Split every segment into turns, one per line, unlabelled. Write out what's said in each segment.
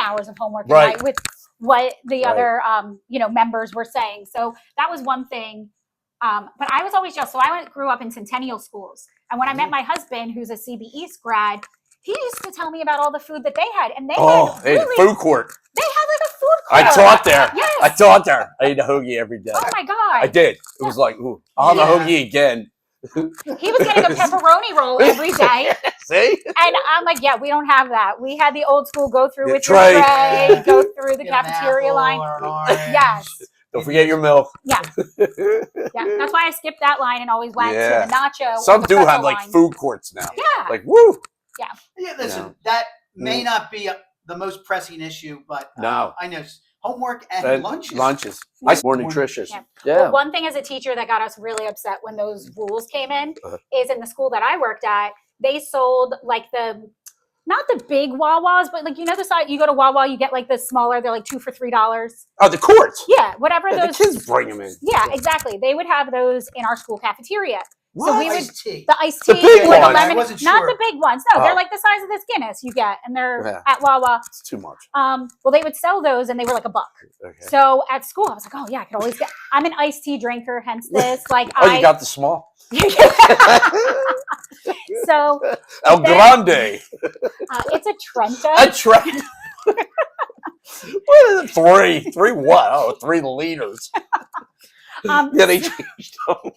hours of homework a
Right.
night with what the
Right.
other um, you know members were saying. So that was one thing. Um, but I was always just so I went, grew up in Centennial schools, and when I
Mm-hmm.
met my husband, who's a CB East grad, he used to tell me about all the food that they had, and they
Oh,
had
hey,
really
food court.
they had like a food court.
I taught there.
Yes.
I taught there. I ate a hoagie every day.
oh my
I
god.
did. It was like, ooh, I'll have a hoagie again.
He was getting a pepperoni roll every day.
See?
And I'm like, yeah, we don't have that. We had the old school go through
Yeah,
with your
tray.
tray,
Yeah.
go through the
Get an
cafeteria
apple
line.
or an orange.
Yes.
Don't forget your milk.
Yeah. Yeah. That's why I skipped that line and always went
Yeah.
to the nacho. or
Some
the
do
pretzel
have like
line.
food courts now.
Yeah.
Like, woo.
Yeah,
Yeah.
listen,
Mm.
that may not be a- the most pressing issue, but uh,
No.
I know s- homework and
And
lunches.
Lunches. I more nutritious.
Yeah.
Yeah.
But one thing as a teacher that got us really upset when those rules came in
Uh-huh.
is in the school that I worked at, they sold like the not the big Wawas, but like you know the side you go to Wawa, you get like the smaller, they're like two for three dollars.
Oh, the courts.
Yeah, whatever
Yeah, the
those
kids bring them in.
Yeah, exactly. They would have those in our school cafeteria. So we would
Iced tea.
the iced
The
tea
big
or the
ones.
lemon,
I wasn't
not
sure.
the big ones. No,
Oh.
they're like the size of this Guinness you get, and they're
Yeah.
at Wawa.
It's too much.
Um, well, they would sell those, and they were like a buck.
Okay.
So at school, I was like, oh yeah, I could always get. I'm an iced tea drinker, hence this. Like
Oh,
I.
you got the small.
so
El
Then-
Grande.
uh, it's a Trenta.
I tried. what is it? Three. Three what? Oh, three liters.
um,
Yeah, they changed them.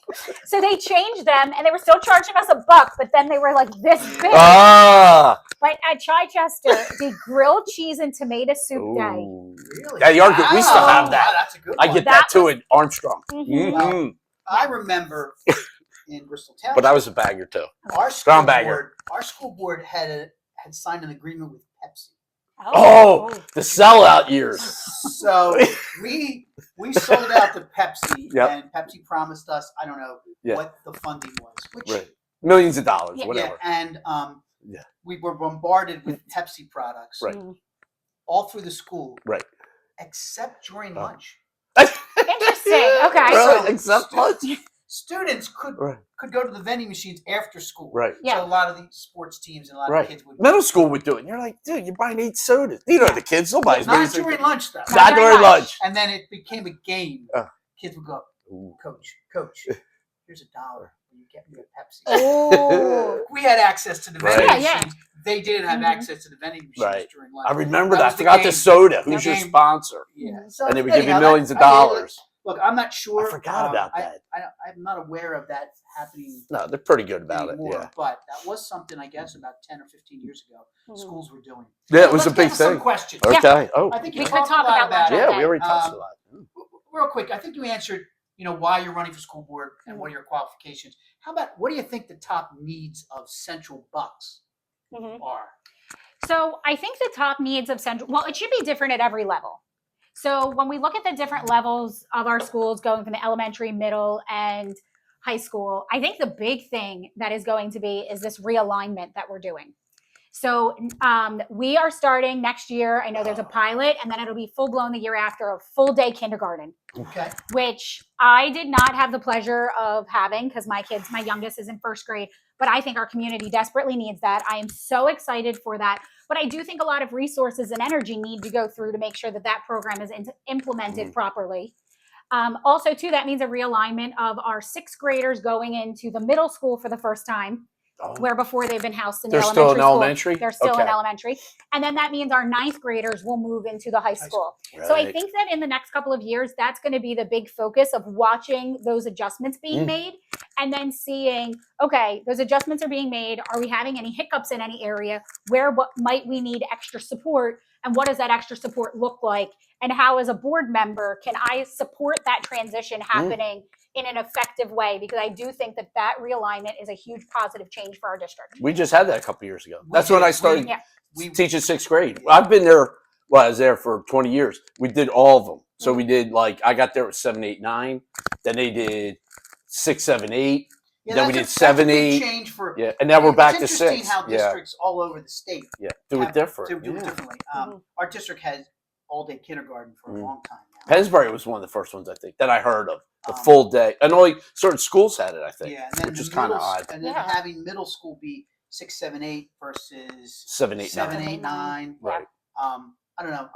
so they changed them, and they were still charging us a buck, but then they were like this big.
Ah.
but at Chichester, the grilled cheese and tomato soup day.
Ooh.
Really?
Yeah, you are good. We still
have
Wow,
that.
that's a good
I
one.
get
That
that, too at Armstrong.
Mhm.
Mm-hmm.
Mhm.
I remember in Bristol Town.
But I was a bagger too.
our school
Groundbagger.
board, our school board had a, had signed an agreement with Pepsi.
Oh. The sellout years.
So we we sold out to Pepsi,
Yep.
and Pepsi promised us I don't know
Yeah.
what the funding was, which
Right. Millions of dollars,
Yeah.
whatever.
yeah, and um,
Yeah. Mm.
we were bombarded with Pepsi products
Right.
Mm.
all through the school,
Right.
except during
Oh.
lunch.
Interesting. Okay.
Really?
So-
Except lunch.
Students could
Right.
could go to the vending machines after school.
Right.
Yeah.
So a lot of these sports teams and a lot
Right.
of kids would
Middle school would do it. And you're like, dude, you're buying eight sodas. You know the kids. Nobody's buying
not
sodas.
during lunch though.
Not
Not
during
during lunch.
lunch.
And then it became a game.
Oh.
Kids would go,
Ooh.
Coach, coach, here's a dollar.
Uh.
Will you get me a Pepsi?
Oh.
We had access to the vending
Right.
Yeah, yeah.
machines. They didn't have
Mhm.
access to the vending machines
Right.
during lunch.
I remember
That
that.
was
I
the
forgot the
game.
soda. Who's
The
your
game.
sponsor?
Mm-hmm.
Yeah. So,
And they would give you
anyhow, that-
millions of
I mean, look-
dollars.
Look, I'm not sure. um,
forgot about
I-
that.
I, don't- I'm not aware of that happening
No, they're pretty good about it.
anymore.
Yeah.
But that was something, I guess, about 10 or 15 years ago,
Mm.
schools were doing.
Yeah, it
So
was a
let's
big
get to some
thing.
questions.
Yeah.
Okay. Oh.
I think you
We could
talked a
talk
lot
about
about
lunch.
it.
Yeah, we already touched
Um,
a lot.
Real quick, I think you answered, you know, why you're running for school board
Hmm.
and what are your qualifications. How about, what do you think the top needs of Central Bucks
Mhm.
are?
So I think the top needs of central, well, it should be different at every level. So when we look at the different levels of our schools going from the elementary, middle, and high school, I think the big thing that is going to be is this realignment that we're doing. So um, we are starting next year. I know there's a pilot, and then it'll be full blown the year after a full day kindergarten.
Okay.
which I did not have the pleasure of having because my kids, my youngest is in first grade, but I think our community desperately needs that. I am so excited for that. But I do think a lot of resources and energy need to go through to make sure that that program is in-
Mm-hmm.
implemented properly. Um, also, too, that means a realignment of our sixth graders going into the middle school for the first time,
Oh.
where before they've been housed in
They're
the
still in
elementary school.
elementary.
They're still in
Okay.
elementary. And then that means our ninth graders will move into the high
school.
school. So I
Right.
think that in the next couple of years, that's going to be the big focus of watching those adjustments being
Mm.
made and then seeing, okay, those adjustments are being made. Are we having any hiccups in any area? Where what might we need extra support? And what does that extra support look like? And how, as a board member, can I support that transition
Mm.
happening in an effective way? Because I do think that that realignment is a huge positive change for our district.
We just had that a couple years ago.
We
That's when
did.
I started
We-
Yeah.
we-
teaching sixth grade. I've been there. Well, I was there for 20 years. We did all of them. So
Mm-hmm.
we did like I got there at seven, eight, nine. Then they did six, seven, eight.
Yeah,
Then we did
that's a- that's a
seven,
big
eight.
Change for.
Yeah, and now we're
It's
back to
interesting
six.
How
Yeah,
districts all over the state
yeah. Do it
have- do,
different.
do it
Yeah.
differently. Um, Our district has all day kindergarten for
Mhm.
a long time now.
Pennsbury was one of the first ones I think that I heard of. The
Um,
full day, and only certain schools had it. I think
Yeah, and then
which
the
is kinda
middle s-
odd.
And then
Yeah.
having middle school be six, seven, eight versus
seven, eight, nine.
seven, eight, nine.
Yeah.
Right.
Um, I don't know.